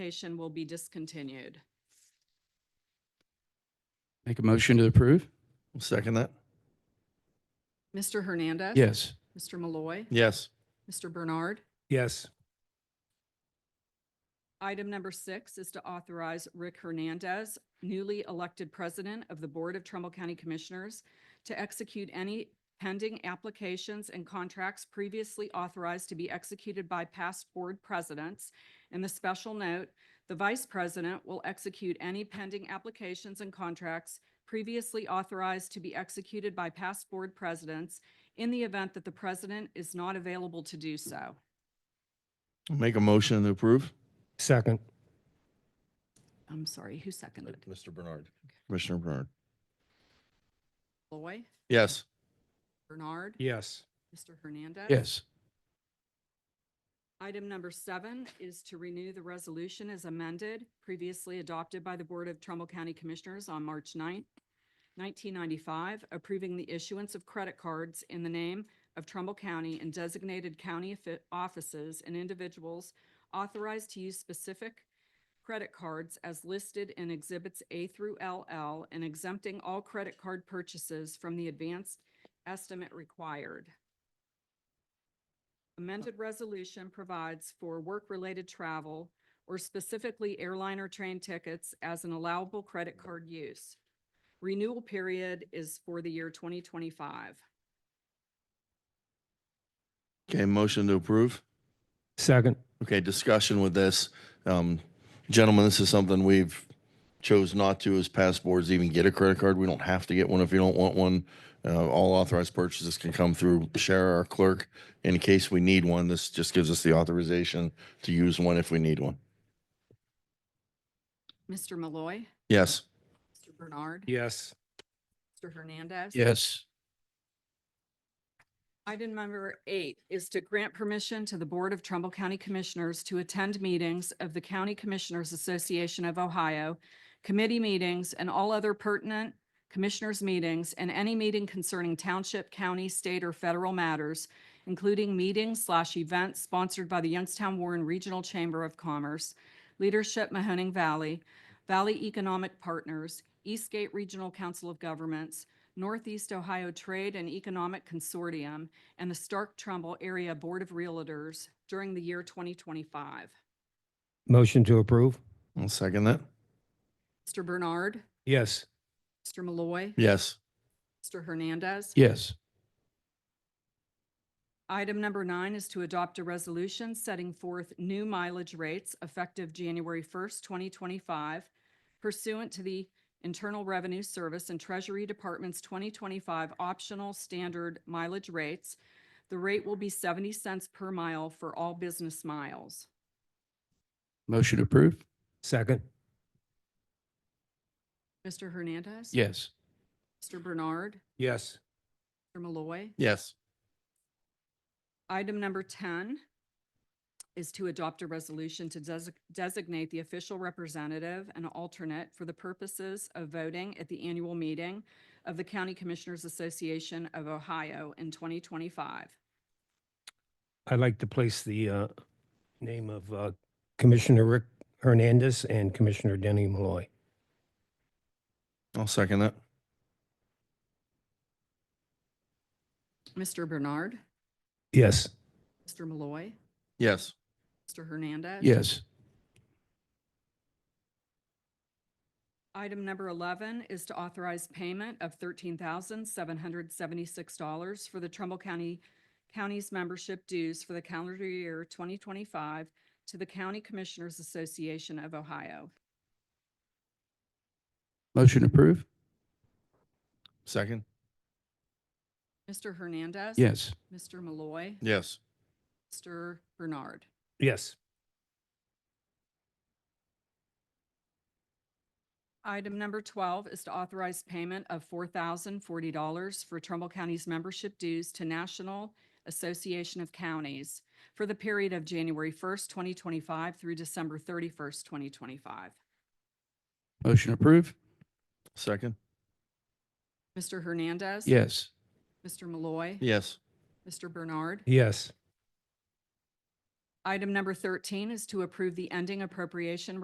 Station will be discontinued. Make a motion to approve? I'll Second that. Mr. Hernandez. Yes. Mr. Malloy. Yes. Mr. Bernard. Yes. Item number six is to authorize Rick Hernandez, newly elected president of the Board of Trumbull County Commissioners, to execute any pending applications and contracts previously authorized to be executed by past board presidents. In the special note, the vice president will execute any pending applications and contracts previously authorized to be executed by past board presidents in the event that the president is not available to do so. I'll Make a motion to approve. Second. I'm sorry, who seconded? Mr. Bernard. Commissioner Bernard. Loy? Yes. Bernard? Yes. Mr. Hernandez? Yes. Item number seven is to renew the resolution as amended, previously adopted by the Board of Trumbull County Commissioners on March 9th, 1995, approving the issuance of credit cards in the name of Trumbull County and designated county offi- offices and individuals authorized to use specific credit cards as listed in Exhibits A through LL and exempting all credit card purchases from the advanced estimate required. Amended resolution provides for work-related travel or specifically airliner train tickets as an allowable credit card use. Renewal period is for the year 2025. Okay, motion to approve. Second. Okay, discussion with this. Um, gentlemen, this is something we've chose not to as past boards even get a credit card. We don't have to get one if you don't want one. Uh, all authorized purchases can come through Shara, our clerk. In case we need one, this just gives us the authorization to use one if we need one. Mr. Malloy. Yes. Mr. Bernard. Yes. Mr. Hernandez. Yes. Item number eight is to grant permission to the Board of Trumbull County Commissioners to attend meetings of the County Commissioners Association of Ohio, committee meetings, and all other pertinent commissioners' meetings, and any meeting concerning township, county, state, or federal matters, including meetings slash events sponsored by the Youngstown Warren Regional Chamber of Commerce, Leadership Mahoning Valley, Valley Economic Partners, Eastgate Regional Council of Governments, Northeast Ohio Trade and Economic Consortium, and the Stark Trumbull Area Board of Realtors during the year 2025. Motion to approve? I'll second that. Mr. Bernard, Yes. Mr. Malloy, Yes. Mr. Hernandez. Yes. Item number nine is to adopt a resolution setting forth new mileage rates effective January 1st, 2025 pursuant to the Internal Revenue Service and Treasury Department's 2025 optional standard mileage rates. The rate will be 70 cents per mile for all business miles. Motion to approve? Second. Mr. Hernandez. Yes. Mr. Bernard. Yes. Mr. Malloy. Yes. Item number 10 is to adopt a resolution to desi- designate the official representative and alternate for the purposes of voting at the annual meeting of the County Commissioners Association of Ohio in 2025. I'd like to place the uh, name of uh, Commissioner Rick Hernandez and Commissioner Denny Malloy. I'll second that. Mr. Bernard, Yes. Mr. Malloy, Yes. Mr. Hernandez. Yes. Item number 11 is to authorize payment of $13,776 for the Trumbull County, County's membership dues for the calendar year 2025 to the County Commissioners Association of Ohio. Motion to approve? Second. Mr. Hernandez. Yes. Mr. Malloy. Yes. Mr. Bernard. Yes. Item number 12 is to authorize payment of $4,040 for Trumbull County's membership dues to National Association of Counties for the period of January 1st, 2025 through December 31st, 2025. Motion to approve? Second. Mr. Hernandez. Yes. Mr. Malloy. Yes. Mr. Bernard. Yes. Item number thirteen is to approve the ending appropriation